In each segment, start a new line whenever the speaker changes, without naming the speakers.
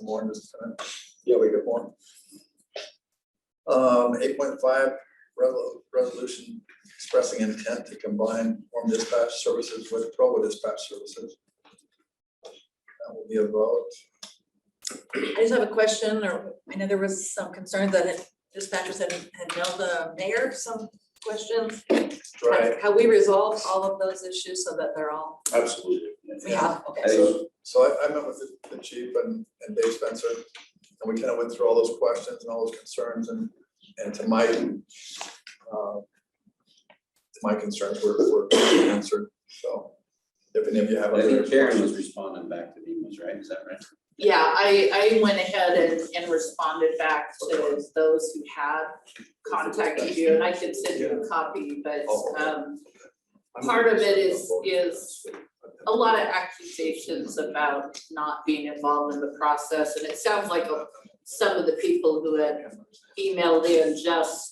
one this time. Yeah, we got one. Um, eight point five, resolution expressing intent to combine form dispatch services with Provo dispatch services. That will be a vote.
I just have a question, or I know there was some concern that it- dispatchers had, had mailed the mayor some questions.
Right.
Have we resolved all of those issues so that they're all,
Absolutely.
we have, okay.
I think-
So I, I met with the- the chief and, and Dave Spencer, and we kind of went through all those questions and all those concerns, and, and to my, uh, my concerns were, were answered, so if any of you have
I
other
think Karen was
questions.
responding back to the emails, right? Is that right?
Yeah, I, I went ahead and, and responded back to those who had contacted you, and I could send you a copy, but, um, part of it is, is a lot of accusations about not being involved in the process, and it sounds like some of the people who had emailed in just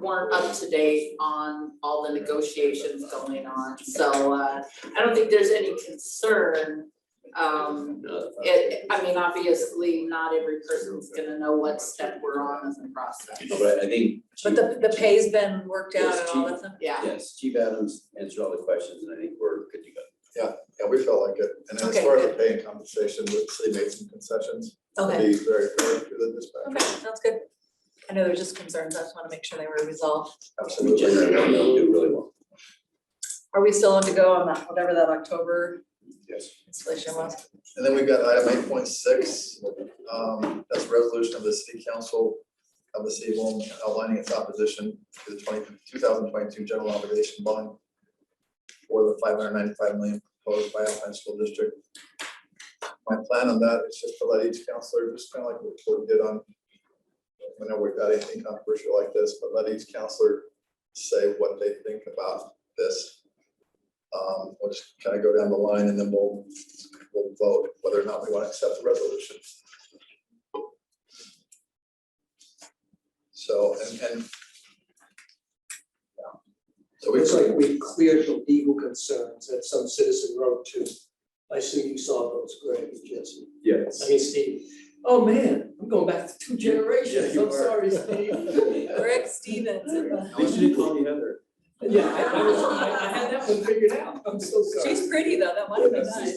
weren't up to date on all the negotiations going on, so, uh, I don't think there's any concern. Um,
No.
it, I mean, obviously, not every person's gonna know what step we're on in the process,
No, But I think.
But the, the pay's been worked out and all that stuff?
yeah.
Yes, Chief Adams answered all the questions and I think we're good to go.
Yeah, we felt like it, and as
Okay,
far as the pay and compensation, the city made some concessions, to
Okay,
be very fair to the dispatch.
okay, sounds good. I know there's just concerns, I just want to make sure they were resolved.
We generally
Absolutely.
don't do really well.
Are we still on to go on that, whatever that October
Yes.
installation was?
And then we've got item eight point six, um, that's a resolution of the city council of the city of Lowell outlining its opposition to the 20 2022 general obligation bond for the five hundred ninety-five million proposed by Alpine School District. My plan on that is just to let each counselor, just kind of like what we did on, whenever we've got anything controversial like this, but let each counselor say what they think about this. Um, we'll just kind of go down the line and then we'll we'll vote whether or not we want to accept the resolution. So, and, and. yeah. So we,
Looks like we cleared the legal concerns that some citizen wrote to. I assume you saw those, Greg and Jesse.
Yes.
I mean, Steve. Oh, man, I'm going back to two
Yeah,
generations.
you
I'm
are.
sorry, Steve.
Rick Stevens.
They should have called the other.
Yeah, I, I was, I, I had that one figured out. I'm so sorry.
She's pretty though, that might have been nice.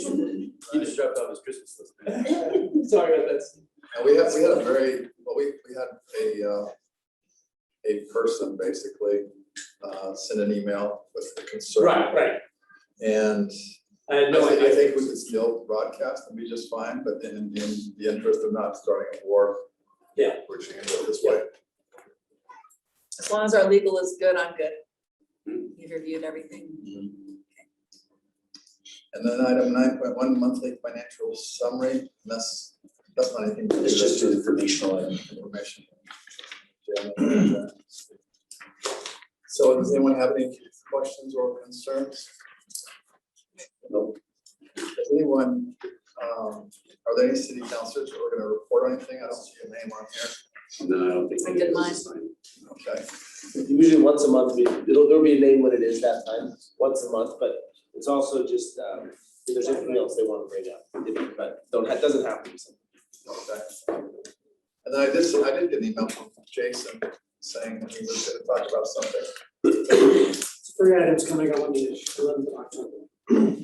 He just dropped off his Christmas list.
Sorry about that. Steve.
and we had, we had a very, well, we, we had a, uh, a person basically, uh, send an email with the concern.
Right, right.
And
I had
I
no
think,
idea.
I think we could still broadcast and be just fine, but in, in the interest of not starting a war.
Yeah.
We're just gonna go this way.
As long as our legal is good, I'm good. You've reviewed everything.
And then item nine point one, monthly financial summary, and that's, that's not anything. to do,
It's
that's
just an informational item.
Information. So does anyone have any questions or concerns?
Nope.
Does anyone, um, are there any city councilors who are gonna report on anything? I don't see a name on here.
No, I don't think.
I
any of
did
us
mine.
assigned.
Okay,
Usually once a month, we, it'll, there'll be a name when it is that time, once a month, but it's also just, um, if there's anything else they wanna bring up, if- but don't, that doesn't happen. so.
okay. And then I did, I did get an email from Jason saying that he was gonna talk about something.
Three items coming up on the eleventh of October.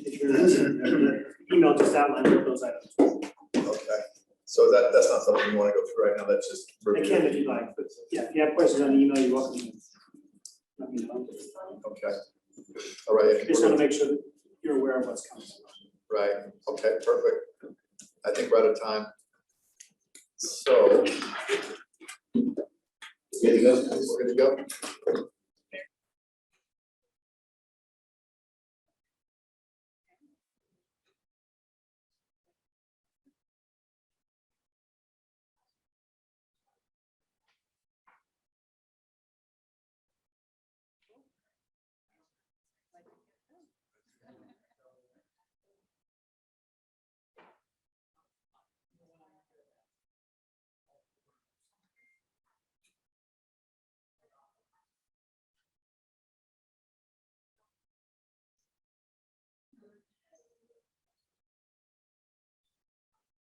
If you're interested, email just outline all those items.
Okay, so that, that's not something you wanna go through right now, that's just.
I can if you'd like, but yeah, if you have questions on the email, you're welcome to. Let me know.
Okay, all right, I think
Just
we're-
want to make sure that you're aware of what's coming.
right, okay, perfect. I think we're out of time. So. Good to go. We're good to go.